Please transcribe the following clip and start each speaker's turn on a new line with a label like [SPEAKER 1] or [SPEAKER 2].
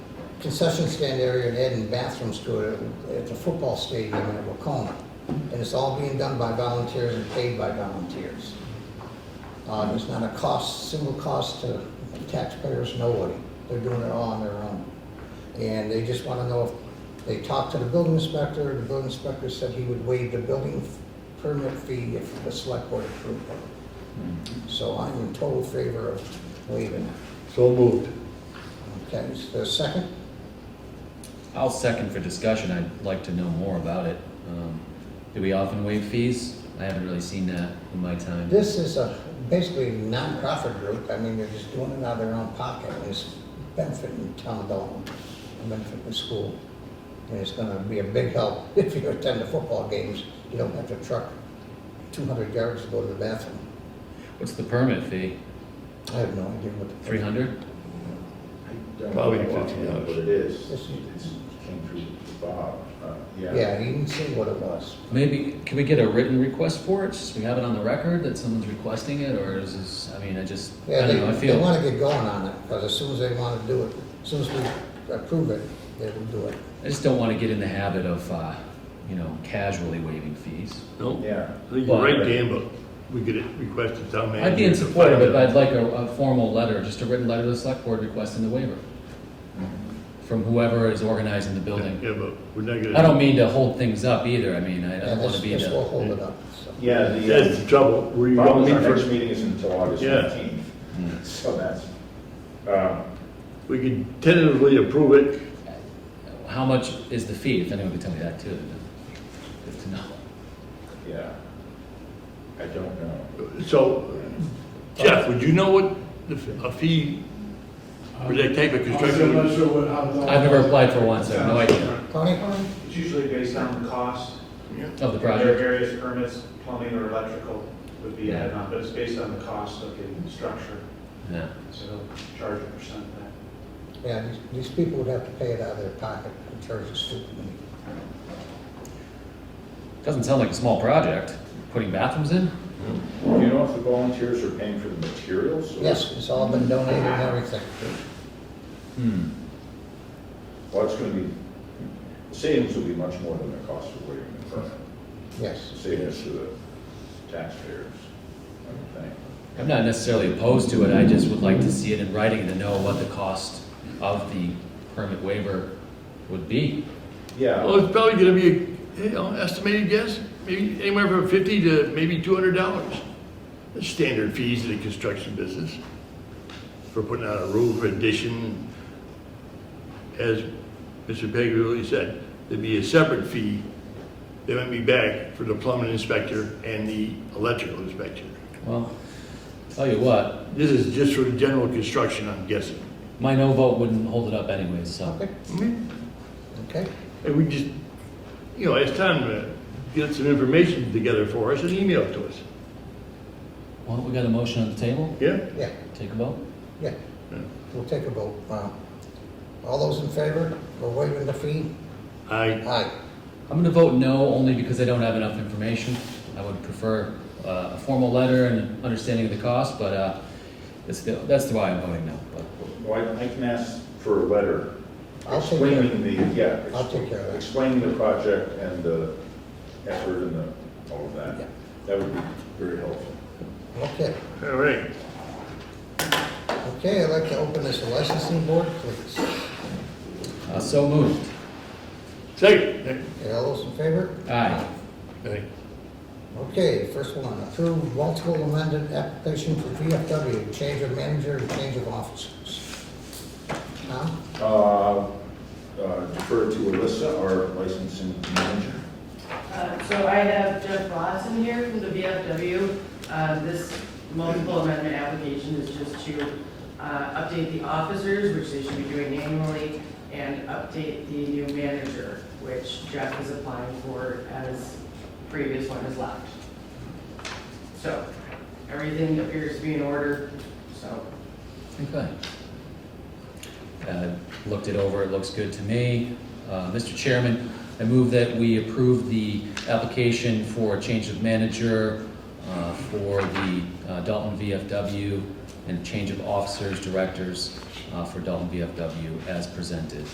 [SPEAKER 1] concession stand area and adding bathrooms to it at the football stadium at Wacoma. And it's all being done by volunteers and paid by volunteers. Uh, There's not a cost, single cost to taxpayers, nobody. They're doing it all on their own. And they just want to know, if they talked to the building inspector, the building inspector said he would waive the building permit fee if the select board approved it. So I'm in total favor of waiving it.
[SPEAKER 2] So moved.
[SPEAKER 1] Okay, is there a second?
[SPEAKER 3] I'll second for discussion, I'd like to know more about it. Um, Do we often waive fees? I haven't really seen that in my time.
[SPEAKER 1] This is a basically nonprofit group. I mean, they're just doing it out of their own pocket and it's benefiting town Dalton, and benefiting the school. And it's gonna be a big help if you attend the football games. You don't have to truck two hundred yards to go to the bathroom.
[SPEAKER 3] What's the permit fee?
[SPEAKER 1] I have no idea what the.
[SPEAKER 3] Three hundred?
[SPEAKER 2] Probably
[SPEAKER 4] I don't know
[SPEAKER 2] fifty dollars.
[SPEAKER 4] What it is,
[SPEAKER 1] This is-
[SPEAKER 4] it's came through Bob, uh, yeah.
[SPEAKER 1] Yeah, you didn't see what it was.
[SPEAKER 3] Maybe, can we get a written request for it, just we have it on the record that someone's requesting it, or is this, I mean, I just,
[SPEAKER 1] Yeah,
[SPEAKER 3] I
[SPEAKER 1] they,
[SPEAKER 3] don't know, I
[SPEAKER 1] they
[SPEAKER 3] feel,
[SPEAKER 1] wanna get going on it, because as soon as they wanna do it, as soon as we approve it, they will do it.
[SPEAKER 3] I just don't wanna get in the habit of, uh, you know, casually waiving fees.
[SPEAKER 2] No,
[SPEAKER 4] Yeah.
[SPEAKER 2] I think you're right, Dan, but we get it requested town manager.
[SPEAKER 3] I'd be in support of it, but I'd like a, a formal letter, just a written letter to the select board requesting the waiver from whoever is organizing the building.
[SPEAKER 2] Yeah, but we're not gonna.
[SPEAKER 3] I don't mean to hold things up either, I mean, I I
[SPEAKER 1] Yeah,
[SPEAKER 3] don't wanna
[SPEAKER 1] this,
[SPEAKER 3] be
[SPEAKER 1] this will
[SPEAKER 3] the, Mm.
[SPEAKER 1] hold it up, so.
[SPEAKER 4] Yeah, the,
[SPEAKER 2] That's
[SPEAKER 4] uh,
[SPEAKER 2] the trouble. We don't
[SPEAKER 4] Bob's,
[SPEAKER 2] meet
[SPEAKER 4] our next
[SPEAKER 2] first.
[SPEAKER 4] meeting is until August
[SPEAKER 2] Yeah. Hmm.
[SPEAKER 4] fifteenth, so that's, um,
[SPEAKER 2] We can tentatively approve it.
[SPEAKER 3] how much is the fee, if anyone could tell me that too, then good to know.
[SPEAKER 4] yeah. I don't know.
[SPEAKER 2] So, Jeff, would you know what the f- a fee for that type of
[SPEAKER 5] I'm
[SPEAKER 2] construction?
[SPEAKER 5] not sure what, how. the-
[SPEAKER 3] I've never applied for one, so I have no idea
[SPEAKER 1] Tony?
[SPEAKER 6] It's usually based on the cost.
[SPEAKER 3] of the
[SPEAKER 6] There are
[SPEAKER 3] project.
[SPEAKER 6] various permits, plumbing or electrical would be added on, but it's based on the cost of the structure,
[SPEAKER 3] Yeah.
[SPEAKER 6] so they'll charge a percent of that.
[SPEAKER 1] Yeah, these, these people would have to pay it out of their pocket in terms of stupid money.
[SPEAKER 3] Doesn't sound like a small project, putting bathrooms in?
[SPEAKER 4] Do you know if the volunteers are paying for the materials? or-
[SPEAKER 1] Yes, it's all been donated and everything.
[SPEAKER 3] Hmm,
[SPEAKER 4] Well, it's gonna be, the savings will be much more than the cost of waiting the permit.
[SPEAKER 1] Yes.
[SPEAKER 4] The savings to the taxpayers, I would think.
[SPEAKER 3] I'm not necessarily opposed to it, I just would like to see it in writing to know what the cost of the permit waiver would be.
[SPEAKER 4] Yeah.
[SPEAKER 2] Well, it's probably gonna be, a you know, estimated guess, maybe anywhere from fifty to maybe two hundred dollars. The standard fees in the construction business for putting out a roof addition. As Mr. Pegg really said, there'd be a separate fee that might be back for the plumbing inspector and the electrical inspector.
[SPEAKER 3] Well, tell you what,
[SPEAKER 2] This is just for the general construction, I'm guessing.
[SPEAKER 3] my no vote wouldn't hold it up anyways, so.
[SPEAKER 1] Okay,
[SPEAKER 2] Mm-hmm.
[SPEAKER 1] okay.
[SPEAKER 2] And we just, you know, it's time to get some information together for us and email it to us.
[SPEAKER 3] Well, we got a motion on the table,
[SPEAKER 2] Yeah?
[SPEAKER 1] Yeah,
[SPEAKER 3] take a vote.
[SPEAKER 1] yeah. We'll take a vote. Uh, All those in favor of waiving the fee?
[SPEAKER 2] I,
[SPEAKER 1] Aye.
[SPEAKER 3] I'm gonna vote no, only because I don't have enough information. I would prefer uh, a formal letter and an understanding of the cost, but uh, that's, the- that's why I'm voting no. But
[SPEAKER 4] Well, I I can ask for a letter
[SPEAKER 1] I'll take care of
[SPEAKER 4] explaining the, yeah.
[SPEAKER 1] I'll take care of that.
[SPEAKER 4] Explaining the project and the effort and the, all of
[SPEAKER 1] Yeah.
[SPEAKER 4] that. That would be very helpful.
[SPEAKER 1] Okay,
[SPEAKER 2] all right.
[SPEAKER 1] okay, I'd like to open this licensing board, please.
[SPEAKER 3] uh, So moved.
[SPEAKER 2] Second.
[SPEAKER 1] Okay, all those in favor?
[SPEAKER 3] Aye.
[SPEAKER 2] Aye.
[SPEAKER 1] Okay, first one, approve multiple amended application for VFW, change of manager and change of officers. Tom?
[SPEAKER 4] Uh, uh, Defer to Alyssa, our licensing manager.
[SPEAKER 7] Uh, So I have Jeff Lawson here from the VFW. Uh, This multiple amendment application is just to uh, update the officers, which they should be doing annually, and update the new manager, which Jeff is applying for as previous one has left. So everything appears to be in order, so
[SPEAKER 3] Okay. Uh, Looked it over, it looks good to me. Uh, Mr. Chairman, I move that we approve the application for a change of manager uh, for the uh, Dalton VFW and change of officers, directors uh, for Dalton VFW as presented.